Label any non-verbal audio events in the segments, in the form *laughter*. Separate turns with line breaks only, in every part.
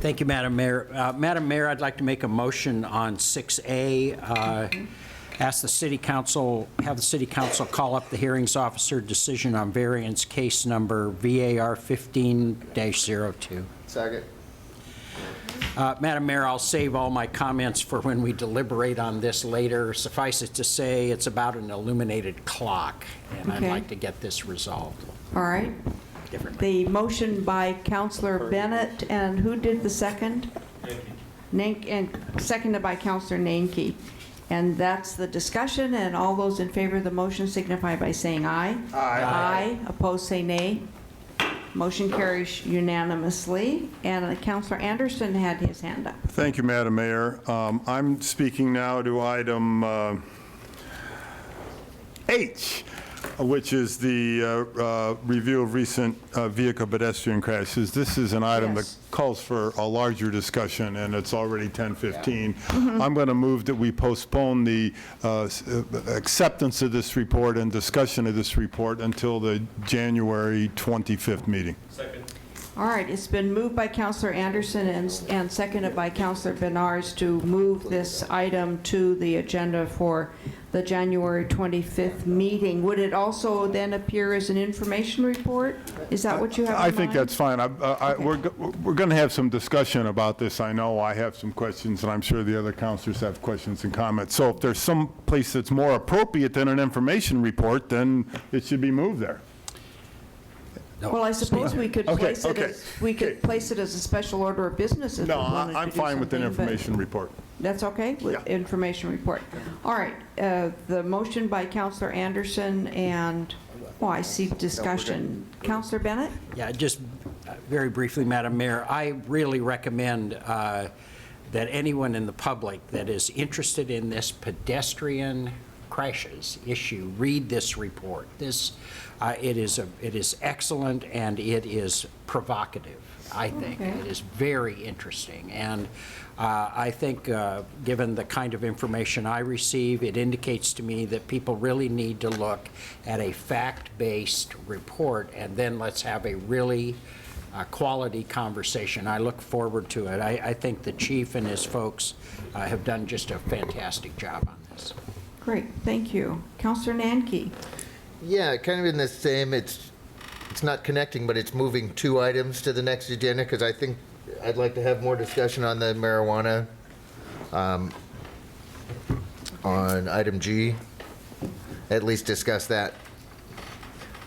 Thank you, Madam Mayor. Uh, Madam Mayor, I'd like to make a motion on 6A. uh, Ask the city council, have the city council call up the hearings officer decision on variance case number VAR 15-02.
Second.
Uh, Madam Mayor, I'll save all my comments for when we deliberate on this later. Suffice it to say, it's about an illuminated clock, and I'd
Okay.
like to get this resolved
All right.
differently.
The motion by Counselor Bennett, and who did the second? Nank, and seconded by Counselor Nanki. And that's the discussion, and all those in favor of the motion signify by saying aye. Aye. Aye, opposed say nay. Motion carries unanimously, and Counselor Anderson had his hand up.
Thank you, Madam Mayor. Um, I'm speaking now to item uh, H, which is the uh, uh, review of recent uh, vehicle pedestrian crashes. This is an item that
Yes.
calls for a larger discussion, and it's already 10:15. I'm going to move that we postpone the uh, s- uh, acceptance of this report and discussion of this report until the January 25th meeting.
All right, it's been moved by Counselor Anderson and, and seconded by Counselor Benars to move this item to the agenda for the January 25th meeting. Would it also then appear as an information report? Is that what you have in
I think
mind?
that's fine. I- I- I- We're going to have some discussion about this. I know I have some questions, and I'm sure the other counselors have questions and comments. So if there's some place that's more appropriate than an information report, then it should be moved there.
Well, I suppose we could
Okay,
place it
okay,
as, we could
okay.
place it as a special order of business if we
No,
wanted
I-
to
I'm
do
fine with an
something, but-
information report.
That's okay, with
Yeah.
information report. All right, uh, the motion by Counselor Anderson and, oh, I see discussion. Counselor Bennett?
Yeah, just uh, very briefly, Madam Mayor, I really recommend uh, that anyone in the public that is interested in this pedestrian crashes issue, read this report. This, uh, it is, a- it is excellent and it is provocative, I think.
Okay.
It is very interesting. And uh, I think, uh, given the kind of information I receive, it indicates to me that people really need to look at a fact-based report, and then let's have a really uh, quality conversation. I look forward to it. I I think the chief and his folks uh, have done just a fantastic job on this.
Great, thank you. Counselor Nanki?
Yeah, kind of in the same, it's, it's not connecting, but it's moving two items to the next agenda, because I think, I'd like to have more discussion on the marijuana, um, on item G, at least discuss that.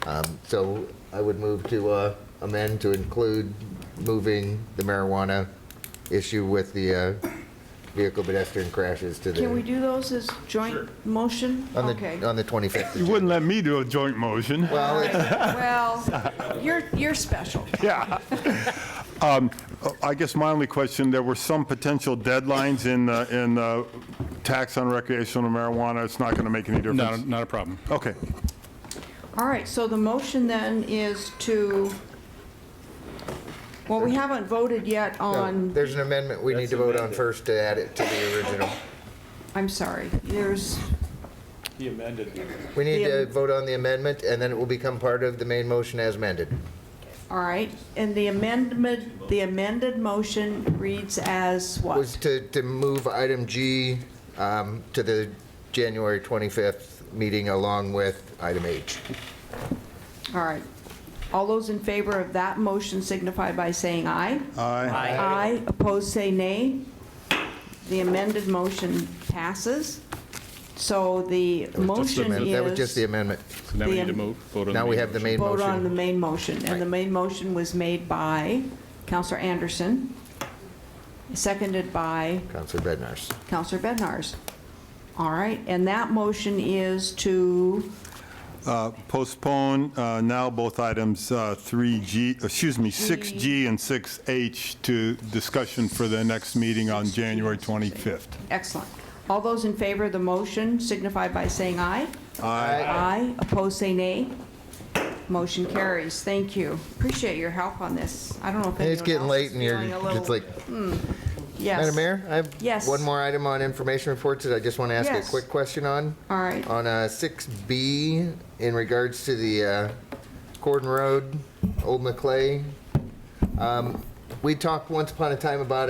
Um, So I would move to uh, amend to include moving the marijuana issue with the uh, vehicle pedestrian crashes to the.
Can we do those as joint motion?
On
Okay.
the, on the 25th.
You wouldn't let me do a joint motion.
Well, it's-
Well, you're, you're special.
*laughs* Yeah. Um, I guess my only question, there were some potential deadlines in, the- in the tax on recreational marijuana. It's not going to make any difference.
Not, a- not a problem.
Okay.
All right, so the motion then is to, well, we haven't voted yet
No,
on,
There's an amendment we need to vote on first to add it to the original.
I'm sorry, there's,
He amended.
We need
The
to
am-
vote on the amendment, and then it will become part of the main motion as amended.
all right, and the amendment, the amended motion reads as
Was
what?
to, to move item G um, to the January 25th meeting along with item H.
All right. All those in favor of that motion signify by saying aye.
Aye.
Aye, opposed, say nay. The amended motion passes. So the motion is...
That was just the amendment.
So now we need to move, vote on the
Now we
main
have the
motion.
main
Vote on the
motion.
main motion, and the main motion was made by Counselor Anderson, seconded by
Counselor Bednarz.
Counselor Bednarz. All right, and that motion is to,
Uh, Postpone uh, now both items uh, 3G, excuse me, 6G and 6H to discussion for the next meeting on January 25th.
excellent. All those in favor of the motion signify by saying aye.
Aye.
Aye, opposed, say nay. Motion carries, thank you. Appreciate your help on this. I don't know if anyone
It's getting
else
late
is
and you're,
feeling a little-
it's like,
Yes.
Madam Mayor, I have
Yes.
one more item on information reports that I just want to ask a
Yes.
quick question on.
All right.
On uh, 6B, in regards to the uh, Corden Road, Old McClay, um, we talked once upon a time about